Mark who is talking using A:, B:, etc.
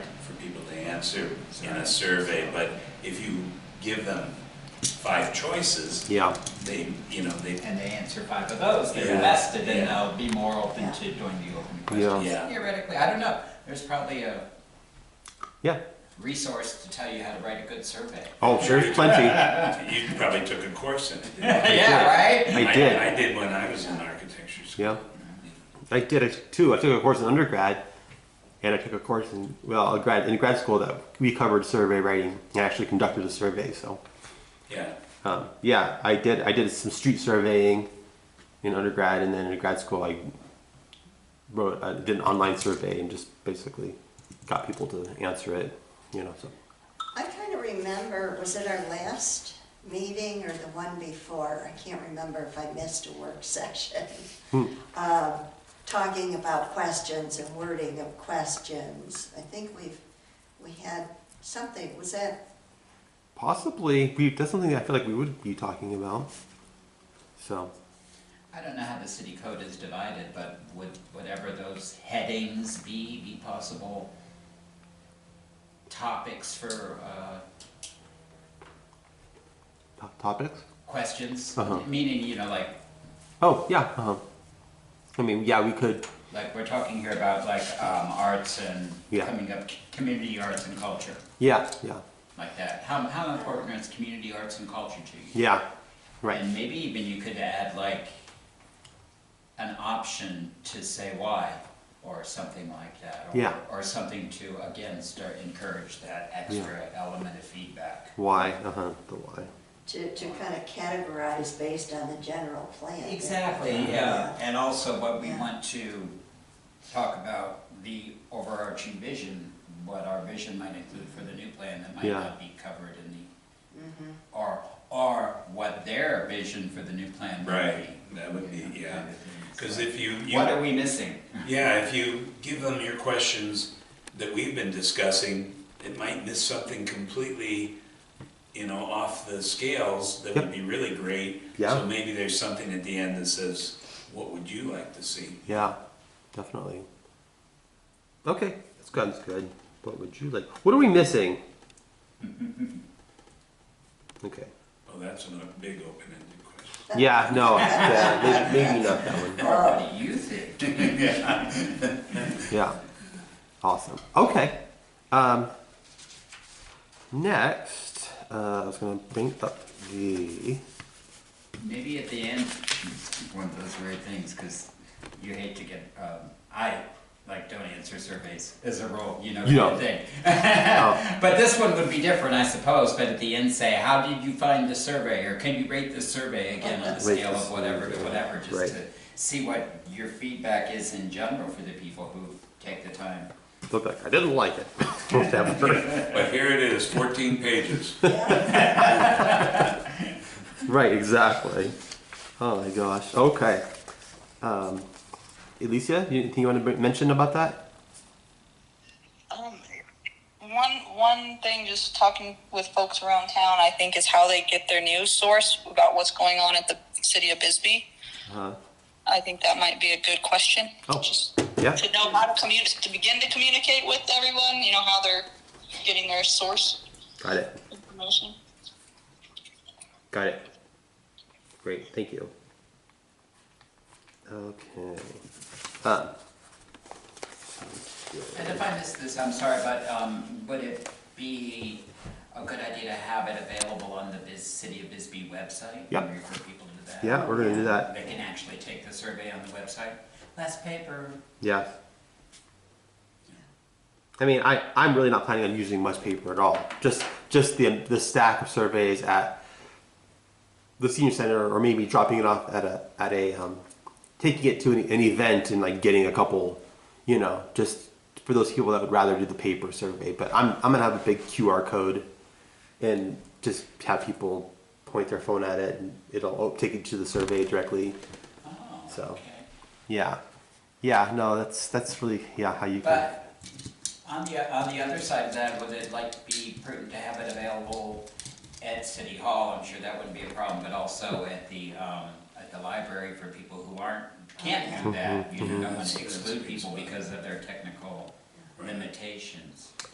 A: a sur, in a survey, but if you give them five choices,
B: Yeah,
A: they, you know, they,
C: and they answer five of those, they're
A: Yeah.
C: vested, and
A: Yeah.
C: they'll be more open
D: Yeah.
C: to doing the open
A: Yeah.
C: questions. Theoretically, I don't know, there's probably a
B: yeah.
C: resource to tell you how to write a good survey.
B: Oh, there's plenty.
A: you probably took a course in it. didn't you?
C: Yeah, right?
B: I did.
A: I did when I was in architecture school.
B: Yeah. I did it too. I took a course in undergrad, and I took a course in well, a grad in grad school that we covered survey writing. I actually conducted a survey, so
A: Yeah,
B: um, yeah, I did. I did some street surveying in undergrad, and then in grad school, I wrote, I did an online survey, and just basically got people to answer it. You know, so
D: I kind of remember, was it our last meeting or the one before? I can't remember if I missed a work session. Um, Talking about questions and wording of questions. I think we've, we had something, was that,
B: possibly we that's something that I feel like we would be talking about. So
C: I don't know how the city code is divided, but would whatever those headings be, be possible topics for, uh,
B: top topics.
C: questions?
B: Uh-huh.
C: Meaning, you know, like,
B: Oh yeah. Uh-huh. I mean, yeah, we could.
C: like we're talking here about like, um, arts and
B: Yeah.
C: coming up, community arts and culture,
B: Yeah, yeah,
C: like that. How, how important is community arts and culture to you?
B: yeah. Right.
C: And maybe even you could add like an option to say why or something like that. or-
B: Yeah.
C: Or something to, again, start, encourage that extra element of feedback.
B: Why? Uh huh. The why.
D: to, to kind of categorize based on the general plan?
C: Exactly, yeah, and also what we want to talk about, the overarching vision, what our vision might include for the new plan that might
B: Yeah.
C: not be covered in the, or, or what their vision for the new plan might
A: right,
C: be.
A: that would be,
C: you know,
A: yeah.
C: kind of thing.
A: Because
C: So-
A: if you, you
C: What are we missing?
A: Yeah, if you give them your questions that we've been discussing, it might miss something completely, you know, off the scales that would be really great.
B: Yeah.
A: So maybe there's something at the end that says, what would you like to see?
B: Yeah, definitely. Okay, that's good. That's good. What would you like? What are we missing? Okay.
A: Well, that's a big open-ended question.
B: Yeah. No. Yeah, may- maybe not that one.
A: Oh.
C: Or what do you think?
B: Yeah. Awesome. Okay. Um, next, uh, I was gonna bring up the.
C: Maybe at the end, it's one of those weird things, because you hate to get, um, I, like, don't answer surveys as a rule, you know,
B: Yeah.
C: kind of thing. But this one would be different, I suppose, but at the end say, how did you find the survey, or can you rate the survey again on the
B: Rate
C: scale
B: the
C: of whatever to
B: survey,
C: whatever,
B: right.
C: just to see what your feedback is in general for the people who take the time.
B: Look like I didn't like it. That was great.
A: But here it is, fourteen pages.
D: Yeah.
B: Right, exactly. Oh my gosh. Okay. Um, Alicia, you, anything you want to mention about that?
E: Um, one one thing, just talking with folks around town, I think is how they get their news source about what's going on at the city of Bisbee.
B: Uh,
E: I think that might be a good question.
B: Oh.
E: Just
B: yeah.
E: to know how to communicate, to begin to communicate with everyone. You know how they're getting their source
B: Got it.
E: information.
B: Got it. Great. Thank you. Okay. Um,
C: And if I missed this, I'm sorry, but um, would it be a good idea to have it available on the Bis- City of Bisbee website?
B: Yep.
C: And refer people to that?
B: yeah, we're gonna do that.
C: They can actually take the survey on the website. Less paper.
B: Yeah. I mean, I, I'm really not planning on using much paper at all. Just just the the stack of surveys at the senior center, or maybe dropping it off at a at a um, taking it to an, an event and like getting a couple, you know, just for those people that would rather do the paper survey. But I'm I'm gonna have a big QR code and just have people point their phone at it, and it'll take it to the survey directly.
C: Oh,
B: So.
C: okay.
B: Yeah, yeah, no, that's that's really yeah how you can.
C: But on the, on the other side of that, would it like be prudent to have it available at City Hall? I'm sure that wouldn't be a problem, but also at the, um, at the library for people who aren't, can't do that. You don't want to exclude people because of their technical limitations.